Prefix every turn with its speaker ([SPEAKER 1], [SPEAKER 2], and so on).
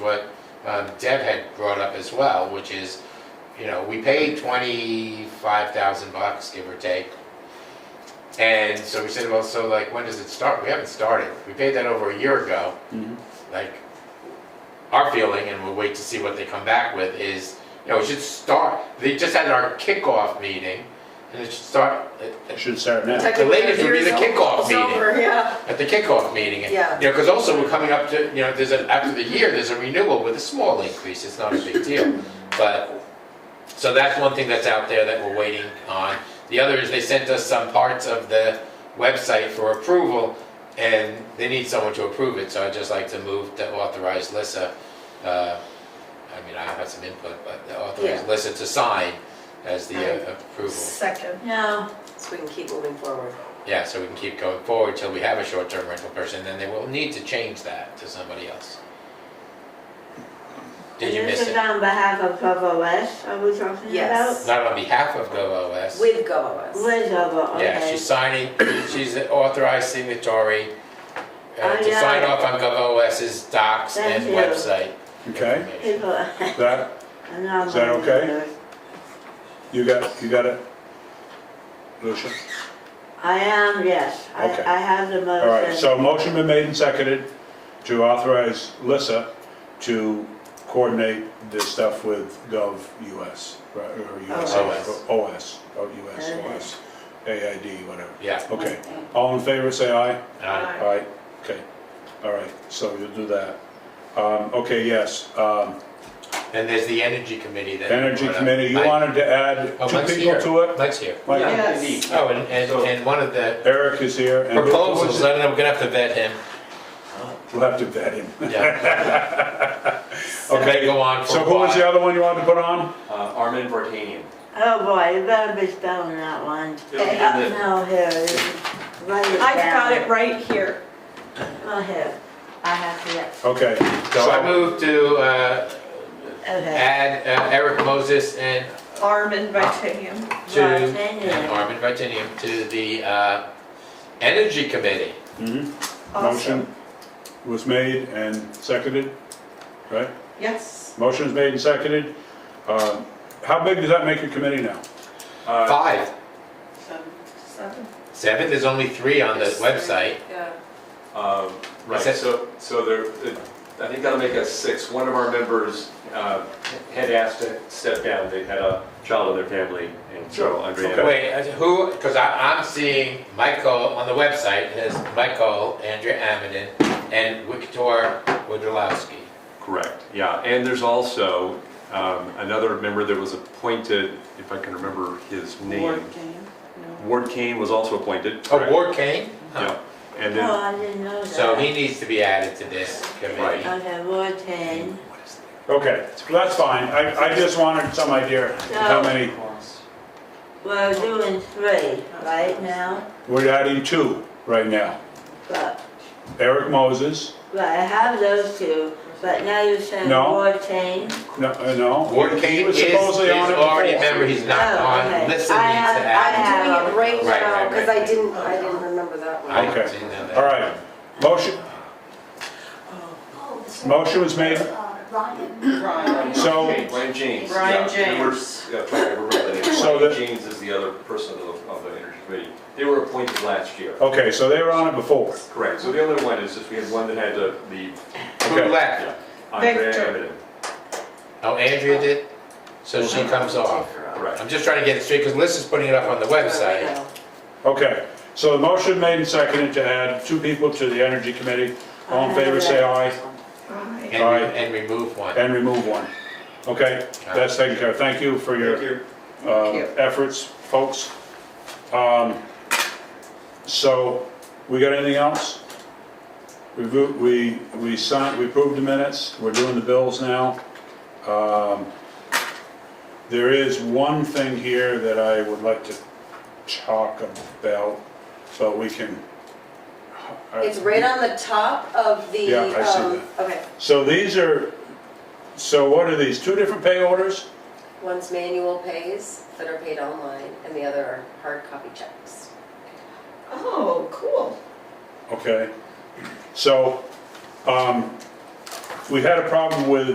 [SPEAKER 1] what um, Deb had brought up as well, which is, you know, we paid twenty-five thousand bucks, give or take. And so we said, well, so like, when does it start? We haven't started. We paid that over a year ago.
[SPEAKER 2] Mhm.
[SPEAKER 1] Like, our feeling, and we'll wait to see what they come back with, is, you know, it should start, they just had our kickoff meeting, and it should start at-
[SPEAKER 2] Should start now.
[SPEAKER 1] Like- The latest would be the kickoff
[SPEAKER 3] It's over, yeah.
[SPEAKER 1] at the kickoff meeting. And,
[SPEAKER 3] Yeah.
[SPEAKER 1] You know, because also we're coming up to, you know, there's a, after the year, there's a renewal with a small increase, it's not a big deal. But, so that's one thing that's out there that we're waiting on. The other is they sent us some parts of the website for approval, and they need someone to approve it, so I'd just like to move to authorize Lissa, uh, I mean, I have some input, but authorize
[SPEAKER 3] Yeah.
[SPEAKER 1] Lissa to sign as the
[SPEAKER 3] Right.
[SPEAKER 1] uh, approval.
[SPEAKER 4] Second.
[SPEAKER 3] No, so we can keep moving forward.
[SPEAKER 1] Yeah, so we can keep going forward till we have a short-term rental person, then they will need to change that to somebody else. Did you miss
[SPEAKER 5] This is
[SPEAKER 1] it?
[SPEAKER 5] on behalf of POVOS, are we talking about?
[SPEAKER 3] Yes.
[SPEAKER 1] Not on behalf of GovOS.
[SPEAKER 3] With GOAS.
[SPEAKER 5] Liz over, okay.
[SPEAKER 1] Yeah, she's signing, she's an authorized signatory uh,
[SPEAKER 5] Oh,
[SPEAKER 1] to sign
[SPEAKER 5] yeah.
[SPEAKER 1] off on GovOS's docs and
[SPEAKER 5] Thank you.
[SPEAKER 1] website.
[SPEAKER 2] Okay,
[SPEAKER 1] information.
[SPEAKER 5] People.
[SPEAKER 2] that,
[SPEAKER 5] I'm
[SPEAKER 2] Is that
[SPEAKER 5] not-
[SPEAKER 2] okay? you got, you got it? Lucia?
[SPEAKER 5] I am, yes. I,
[SPEAKER 2] Okay.
[SPEAKER 5] I have the motion.
[SPEAKER 2] All right, so motion been made and seconded to authorize Lissa to coordinate this stuff with Gov US, right, or US,
[SPEAKER 1] OS.
[SPEAKER 2] OS, or US,
[SPEAKER 5] Okay.
[SPEAKER 2] OS, Uh-huh. AID, whatever.
[SPEAKER 1] Yeah.
[SPEAKER 2] Okay, all in favor, say aye.
[SPEAKER 1] Uh,
[SPEAKER 2] All right, okay, all right, so you'll do that. Um, okay, yes, um,
[SPEAKER 1] And there's the Energy Committee that.
[SPEAKER 2] Energy
[SPEAKER 1] brought up.
[SPEAKER 2] Committee, you
[SPEAKER 1] I-
[SPEAKER 2] wanted to add
[SPEAKER 1] Oh,
[SPEAKER 2] two
[SPEAKER 1] Mike's
[SPEAKER 2] people
[SPEAKER 1] here.
[SPEAKER 2] to it?
[SPEAKER 1] Mike's here.
[SPEAKER 2] Mike,
[SPEAKER 4] Yes.
[SPEAKER 1] Oh, and, and, and one of the
[SPEAKER 2] Eric is here. and-
[SPEAKER 1] proposals, I don't know, we're gonna have to vet him.
[SPEAKER 2] We'll have to vet him.
[SPEAKER 1] Yeah. It may go on for a
[SPEAKER 2] So
[SPEAKER 1] while.
[SPEAKER 2] who was the other one you wanted to put on?
[SPEAKER 6] Uh, Armin Vartanian.
[SPEAKER 5] Oh, boy, you better be spelling that one.
[SPEAKER 6] It'll be in
[SPEAKER 5] Uh,
[SPEAKER 6] the-
[SPEAKER 5] No, here, it is. write it down.
[SPEAKER 4] I've got it right here.
[SPEAKER 5] Oh, here, I have to, get-
[SPEAKER 2] Okay.
[SPEAKER 1] So I move to, uh,
[SPEAKER 5] okay.
[SPEAKER 1] add uh, Eric Moses and
[SPEAKER 4] Armin Vitanium.
[SPEAKER 1] to,
[SPEAKER 5] Vartanian.
[SPEAKER 1] and Armin Vitinium to the uh, Energy Committee.
[SPEAKER 2] Mhm.
[SPEAKER 4] Awesome.
[SPEAKER 2] Motion was made and seconded, right?
[SPEAKER 4] Yes.
[SPEAKER 2] Motion's made and seconded. Um, How big does that make your committee now?
[SPEAKER 6] Uh,
[SPEAKER 1] Five.
[SPEAKER 4] Seven.
[SPEAKER 1] Seventh is only three on the website.
[SPEAKER 3] Yeah.
[SPEAKER 6] Um, Right,
[SPEAKER 1] Is that-
[SPEAKER 6] so, so there, it- I think that'll make us six. One of our members uh, had asked to step down, they had a child in their family, and so Andrea.
[SPEAKER 1] Wait, uh, who, because I'm seeing Michael on the website, it has Michael, Andrea Amidon, and Victor Wodolowski.
[SPEAKER 6] Correct, yeah, and there's also um, another member that was appointed, if I can remember his name. Ward Kane was also appointed.
[SPEAKER 1] Oh,
[SPEAKER 6] correct?
[SPEAKER 1] Ward Kane?
[SPEAKER 6] Yeah, and
[SPEAKER 5] Oh,
[SPEAKER 6] then,
[SPEAKER 5] I didn't know that.
[SPEAKER 1] So he needs to be added to this committee.
[SPEAKER 5] Okay, Vartan.
[SPEAKER 2] Okay, that's fine. I, I just wanted some idea of how many.
[SPEAKER 5] We're doing three right now,
[SPEAKER 2] We're adding two right now.
[SPEAKER 5] but,
[SPEAKER 2] Eric Moses,
[SPEAKER 5] but I have those two, but now you're saying
[SPEAKER 2] No.
[SPEAKER 5] Vartan.
[SPEAKER 2] no, uh, no.
[SPEAKER 1] Ward
[SPEAKER 2] He
[SPEAKER 1] Kane
[SPEAKER 2] was
[SPEAKER 1] is, is
[SPEAKER 2] supposedly on it
[SPEAKER 1] already a
[SPEAKER 2] before.
[SPEAKER 1] member, he's not
[SPEAKER 5] Oh,
[SPEAKER 1] on,
[SPEAKER 5] okay.
[SPEAKER 1] Lissa needs to
[SPEAKER 5] I have- I
[SPEAKER 1] add him.
[SPEAKER 5] have-
[SPEAKER 3] I'm doing it right
[SPEAKER 1] Right, right,
[SPEAKER 3] now,
[SPEAKER 1] right.
[SPEAKER 3] because I didn't, I didn't remember that one.
[SPEAKER 1] I
[SPEAKER 2] Okay.
[SPEAKER 1] didn't know that.
[SPEAKER 2] All right, motion, Motion was made.
[SPEAKER 7] Ryan.
[SPEAKER 2] So-
[SPEAKER 6] Ryan James.
[SPEAKER 4] Ryan
[SPEAKER 6] yeah, and we're-
[SPEAKER 4] James.
[SPEAKER 6] Yeah, I remember the name.
[SPEAKER 2] So
[SPEAKER 6] Ryan
[SPEAKER 2] the-
[SPEAKER 6] James is the other person of the, of the energy committee. They were appointed last year.
[SPEAKER 2] okay, so they were on it before.
[SPEAKER 6] Correct, so the other one is just we had one that had to leave.
[SPEAKER 1] Who
[SPEAKER 2] Okay.
[SPEAKER 1] left?
[SPEAKER 6] Yeah, Andrea
[SPEAKER 4] Victor.
[SPEAKER 6] Evident,
[SPEAKER 1] Oh, Andrea did? So she
[SPEAKER 2] Mm-hmm.
[SPEAKER 1] comes off.
[SPEAKER 6] correct.
[SPEAKER 1] I'm just trying to get it straight, because Liz is putting it up on the website.
[SPEAKER 2] Okay, so the motion made and seconded to add two people to the energy committee. All in favor, say aye,
[SPEAKER 4] Aye.
[SPEAKER 1] And, re- and remove one.
[SPEAKER 2] and remove one. Okay, that's taken care of. Thank you for your uh,
[SPEAKER 4] Thank you.
[SPEAKER 2] efforts, folks. Um, So, we got anything else? We, vo- we, we signed, we approved the minutes, we're doing the bills now. Um, There is one thing here that I would like to talk about, so we can.
[SPEAKER 3] It's right on the top of the,
[SPEAKER 2] Yeah, I see
[SPEAKER 3] um, okay,
[SPEAKER 2] So these are, so what are these, two different pay orders?
[SPEAKER 3] one's manual pays that are paid online, and the other are hard copy checks.
[SPEAKER 4] Oh, cool.
[SPEAKER 2] Okay, so, um, we had a problem with